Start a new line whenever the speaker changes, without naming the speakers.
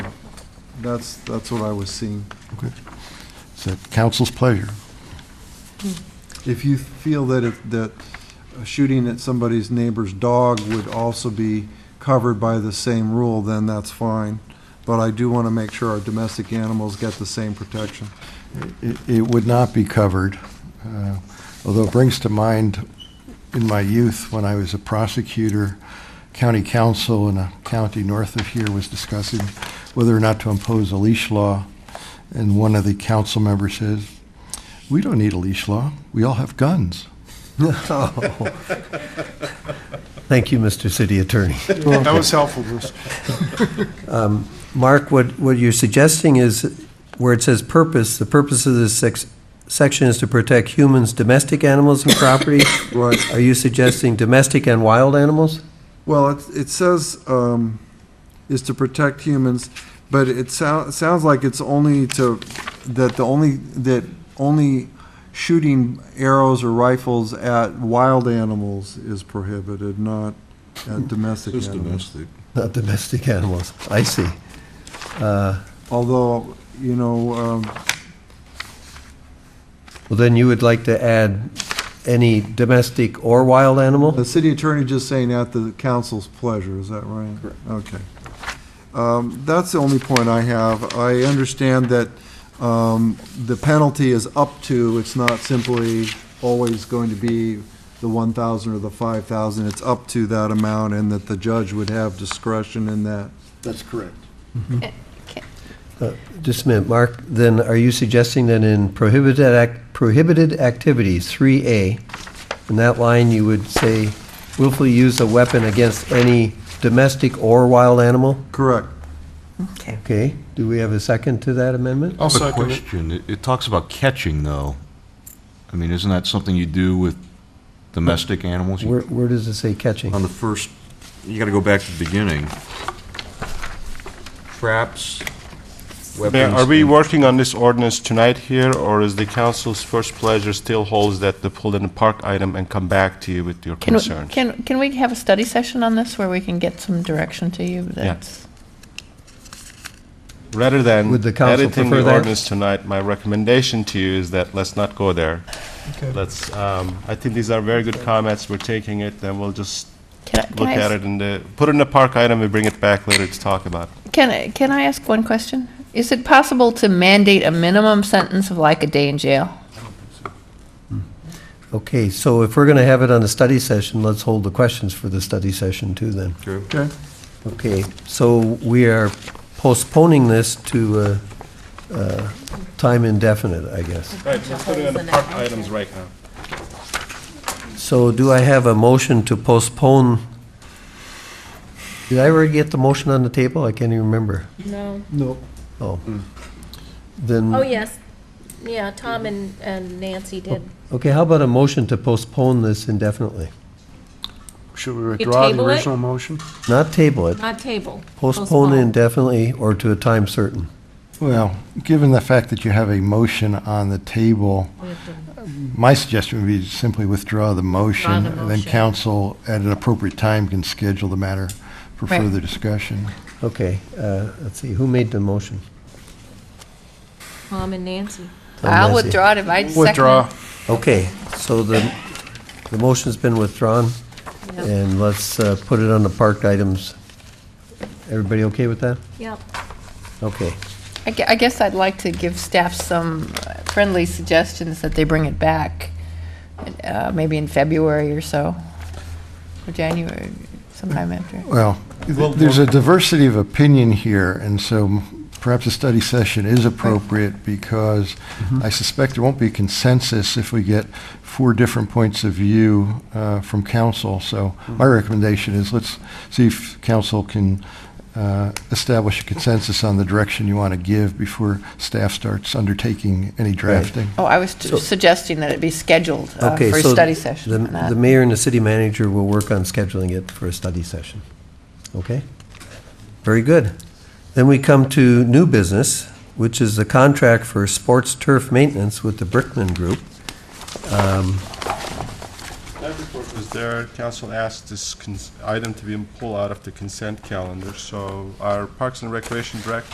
That's, that's what I was seeing.
Okay. It's at council's pleasure.
If you feel that if, that a shooting at somebody's neighbor's dog would also be covered by the same rule, then that's fine. But I do want to make sure our domestic animals get the same protection.
It, it would not be covered, uh, although it brings to mind in my youth, when I was a prosecutor, county council in a county north of here was discussing whether or not to impose a leash law. And one of the council members says, "We don't need a leash law. We all have guns."
Thank you, Mr. City Attorney. Um,
That was helpful, Bruce.
Mark, what, what you're suggesting is where it says purpose, the purpose of this sex, section is to protect humans, domestic animals and property?
Right.
Are you suggesting domestic and wild animals?
Well, it, it says, um, is to protect humans, but it sounds, it sounds like it's only to, that the only, that only shooting arrows or rifles at wild animals is prohibited, not at domestic
It's
animals.
domestic.
Not domestic animals. I see.
Although, you know, um,
Well, then you would like to add any domestic or wild animal?
the city attorney just saying at the council's pleasure, is that right? Correct. Okay. Um, That's the only point I have. I understand that um, the penalty is up to, it's not simply always going to be the 1,000 or the 5,000, it's up to that amount, and that the judge would have discretion in that.
That's correct.
Uh, Just a minute, Mark, then are you suggesting that in prohibited, ac- prohibited activities, 3A, in that line, you would say willfully use a weapon against any domestic or wild animal?
Correct.
Okay.
Okay, do we have a second to that amendment?
I'll
I have a
second it.
question. It- It talks about catching, though. I mean, isn't that something you do with domestic animals?
Where, where does it say catching?
On the first, you gotta go back to the beginning. Traps,
Mayor,
weapons.
Are we
and-
working on this ordinance tonight here, or is the council's first pleasure still holds that the pull and park item and come back to you with your
Can, we-
concerns?
can, can we have a study session on this where we can get some direction to you? That's
Rather than
Would the council
editing
prefer
the
that?
ordinance tonight, my recommendation to you is that let's not go there. Let's, um, I think these are very good comments, we're taking it, then we'll just
Can I, can
look
I,
at
ask-
it and the, put it in the park item and bring it back later to talk about.
can I, can I ask one question? Is it possible to mandate a minimum sentence of like a day in jail?
Oh, Okay, so if we're gonna have it on a study session, let's hold the questions for the study session too then.
Okay.
Okay, so we are postponing this to, uh, uh, time indefinite, I guess.
Right, let's put it in the park items right now.
So do I have a motion to postpone? Did I already get the motion on the table? I can't even remember.
No.
No.
Oh. Then,
Oh, yes. Yeah, Tom and, and Nancy did.
okay, how about a motion to postpone this indefinitely?
Should we withdraw the
table it?
original motion?
Not table it,
Not table.
postpone indefinitely or to a time certain.
Well, given the fact that you have a motion on the table, my suggestion would be to simply withdraw the motion, and then
motion.
council, at an appropriate time, can schedule the matter for
Right.
further discussion.
Okay, uh, let's see, who made the motion?
Tom and Nancy.
Tom
I'll
Lancy.
withdraw it if I second it.
Withdraw.
Okay, so the, the motion's been withdrawn, and let's uh, put it on the parked items. Everybody okay with that?
Yep.
Okay.
I gue- I guess I'd like to give staff some uh, friendly suggestions that they bring it back, uh, maybe in February or so, or January, sometime after.
Well, th- there's a diversity of opinion here, and so perhaps a study session is appropriate, because I suspect there won't be consensus if we get four different points of view uh, from council. So my recommendation is, let's see if council can uh, establish a consensus on the direction you want to give before staff starts undertaking any drafting.
Oh, I was t- suggesting that it be scheduled uh,
Okay,
for a
so
study
the-
session. not-
The mayor and the city manager will work on scheduling it for a study session. Okay? Very good. Then we come to new business, which is the contract for sports turf maintenance with the Brickman Group.
That report was there, council asked this cons- item to be pulled out of the consent calendar, so our Parks and Recreation Director